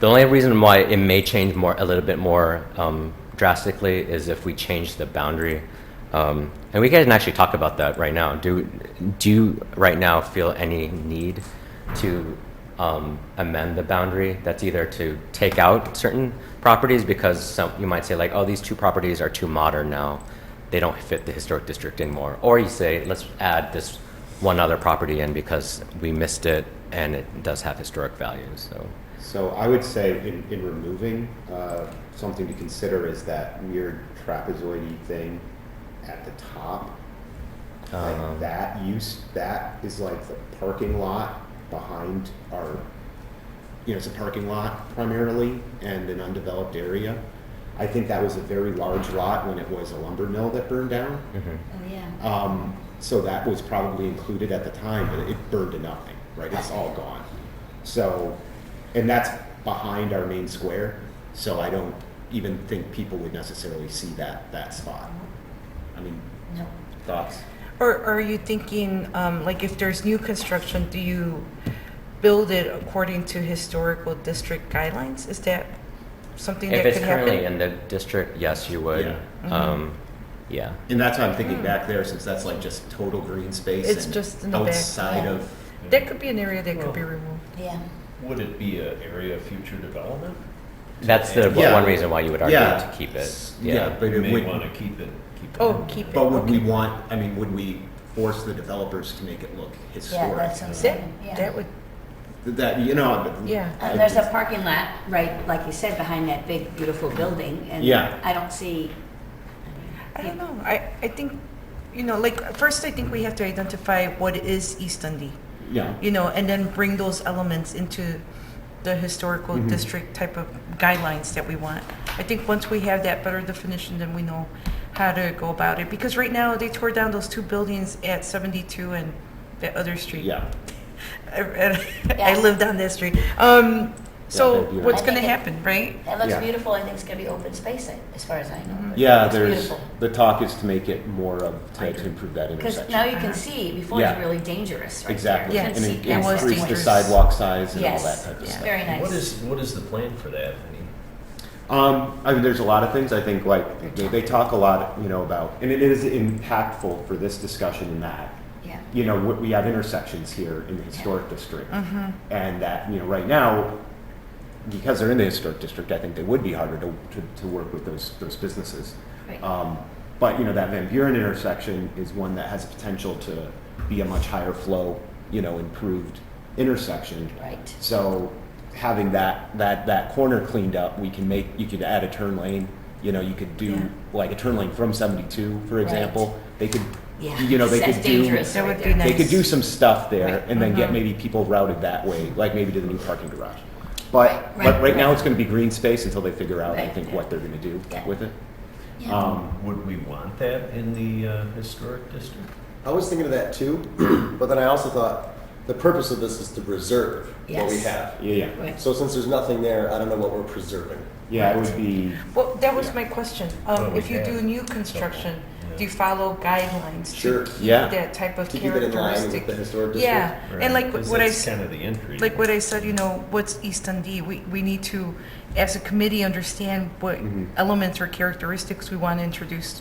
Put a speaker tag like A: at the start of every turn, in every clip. A: The only reason why it may change more, a little bit more um, drastically is if we change the boundary. Um, and we can actually talk about that right now. Do, do you right now feel any need to um, amend the boundary? That's either to take out certain properties because some, you might say like, oh, these two properties are too modern now. They don't fit the historic district anymore. Or you say, let's add this one other property in because we missed it and it does have historic value, so.
B: So I would say in, in removing, uh, something to consider is that weird trapezoidy thing at the top. Like
A: Um.
B: that use, that is like the parking lot behind our, you know, it's a parking lot primarily and an undeveloped area. I think that was a very large lot when it was a lumber mill that burned down.
A: mhm.
C: Oh, yeah.
B: Um, so that was probably included at the time, but it burned to nothing, right? It's all gone. So, and that's behind our main square, so I don't even think people would necessarily see that, that spot. I mean,
C: No.
B: thoughts?
D: Or are you thinking, um, like, if there's new construction, do you build it according to historical district guidelines? Is that something
A: If
D: that
A: it's
D: could
A: currently
D: happen?
A: in the district, yes, you would.
B: Yeah.
A: Um, yeah.
B: And that's why I'm thinking back there, since that's like just total green space.
D: It's
B: and
D: just in the back,
B: Outside
C: yeah.
B: of,
D: That could be an area that could be removed.
C: Oh, Yeah.
E: Would it be an area of future development?
A: That's the
B: Mm-hmm. Yeah.
A: one reason why you would argue
B: Yeah.
A: to keep it.
B: Yeah, but
E: You
B: it
E: may
B: would-
E: want to keep it, keep it.
D: Oh, keep it.
B: but would we
D: okay.
B: want, I mean, would we force the developers to make it look historic?
C: that's what I'm saying.
D: That,
C: Yeah.
D: that would,
B: That, you know. but-
D: Yeah.
C: Uh, There's a parking lot, right, like you said, behind that big, beautiful building. and
B: Yeah.
C: I don't see,
D: I
C: Yeah.
D: don't know, I, I think, you know, like, first I think we have to identify what is East Dundee,
B: Yeah.
D: you know, and then bring those elements into the historical
F: Mm-hmm.
B: Mhm.
D: district type of guidelines that we want. I think once we have that better definition, then we know how to go about it, because right now, they tore down those two buildings at 72 and that other street.
B: Yeah.
D: I- I I
C: Yeah.
D: lived on that street. Um, so
B: that'd be
D: what's
C: nice.
D: gonna happen, right?
C: that looks
B: Yeah. Mm-hmm.
C: beautiful. I think it's going to be open space, I- as far as I know.
B: Yeah,
C: It's
B: there's,
C: beautiful.
B: the talk is to make it more of, to to improve that
C: Because
B: intersection.
C: now you can see, before it
B: Uh-huh. Yeah.
C: was really dangerous right there.
B: Exactly,
C: You couldn't
B: and
C: see
B: it-
D: It
C: past
D: was
C: that
B: increase
C: point.
B: the
D: dangerous.
B: sidewalk size and all that
C: Yes,
B: type of
D: Yeah.
B: stuff.
C: very nice.
E: What is, what is the plan for that? I mean,
B: Um, I mean, there's a lot of things I think, like, they, they talk a lot, you know, about, and it is impactful for this discussion and that,
C: Yeah.
B: you know, we- we have intersections here in the historic district.
C: Mm-hmm.
D: Mm-hmm.
B: And that, you know, right now, because they're in the historic district, I think they would be harder to, to, to work with those, those businesses.
C: Right.
B: Um, but, you know, that Van Buren intersection is one that has potential to be a much higher flow, you know, improved intersection.
C: Right.
B: So having that, that, that corner cleaned up, we can make, you could add a turn lane, you know, you could
D: Yeah.
B: do like a turn lane from seventy-two, for
C: Right.
B: example. They could,
C: Yeah.
B: you know, they
C: That's
B: could do.
C: dangerous
D: That
C: right
D: would be
C: there.
D: nice.
B: They could do some stuff there
C: Right. Uh-huh.
B: and then get
D: Mhm.
B: maybe people routed that way, like maybe to the new parking garage. But,
C: Right,
B: but
C: right,
B: right now
C: right.
B: it's gonna be green space until they figure out, I
C: Right.
B: think, what they're gonna do
C: Yeah.
B: with it.
C: Yeah.
B: Um,
E: would we want that in the uh, historic district?
F: I was thinking of that too, but then I also thought the purpose of this is to preserve what we
C: Yes.
F: have.
B: yeah, yeah.
C: Right.
F: So since there's nothing there, I don't know what we're preserving.
B: Yeah, it would be,
D: Well, that was
B: Yeah.
D: my question.
E: Well,
D: Um,
E: we
D: if you do
E: have
D: new construction,
E: yeah.
D: do you follow guidelines? to
F: Sure.
D: keep
B: Yeah.
D: That type of
F: To keep it in line with
D: characteristic.
F: the historic district.
D: Yeah, and like
E: Because
D: what I,
E: that's
D: s-
E: kind of the entry.
D: like what I said, you know, what's East Dundee? We, we need to, as a committee, understand what
B: Mhm.
D: elements or characteristics we want to introduce.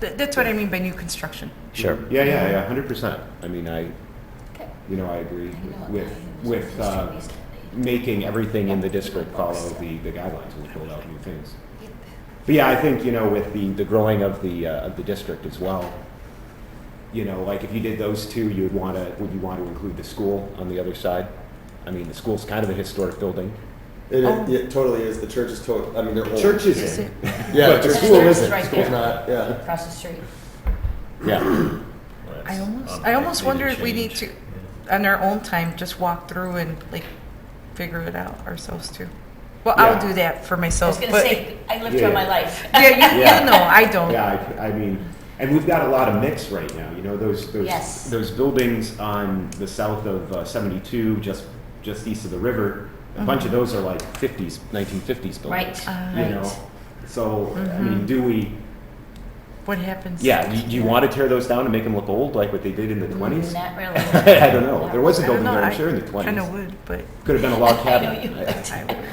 D: Th- That's what I mean by new construction.
A: Sure.
B: yeah, yeah, yeah, hundred percent. I mean, I,
C: Okay.
B: you know, I agree
C: I don't know what
B: with,
C: value is
B: with,
C: in
B: uh,
C: history these days.
B: making everything in the district follow the, the guidelines and build out new things. But yeah, I think, you know, with the, the growing of the, uh, of the district as well, you know, like if you did those two, you would want to, would you want to include the school on the other side? I mean, the school's kind of a historic building.
F: It,
D: Oh.
F: it, totally is. The church is total. I mean, they're old.
B: Church
D: Is
B: is
D: it-
B: in.
F: Yeah,
B: But
F: the
B: the
F: church
B: school
C: church is
B: isn't.
C: right
F: School's
C: there.
F: not. Yeah.
C: Across the street.
B: Yeah.
E: Well,
D: I
E: that's
D: almost- I almost
E: unlikely to
D: wonder if we need
E: change.
D: to-
E: Yeah.
D: On our own time, just walk through and like figure it out ourselves too. Well,
B: Yeah.
D: I'll do that for
C: I
D: myself.
C: was going to
D: but-
C: say, I lived
B: Yeah,
C: through
B: yeah.
C: my life.
D: Yeah, you,
B: Yeah.
D: you know, I don't.
B: Yeah, I, I mean, and we've got a lot of mix right now, you know, those, those,
C: Yes.
B: those buildings on the south of uh, 72, just, just east of the river, a bunch of those are like 50s, 1950s buildings.
C: Right, Uh,
B: You
D: Ah.
C: Mm-hmm. right. Mm-hmm.
B: know, so, I mean, do we,
D: What happens?
B: yeah, do you want to tear those down and make them look old like what they did in the 20s?
C: Not
B: I
C: really.
B: don't know. There was a building there, I'm sure, in the
D: Kind of
B: 20s.
D: would, but.
B: Could have been a log
C: I know
B: cabin.
C: you
B: I-
D: I would.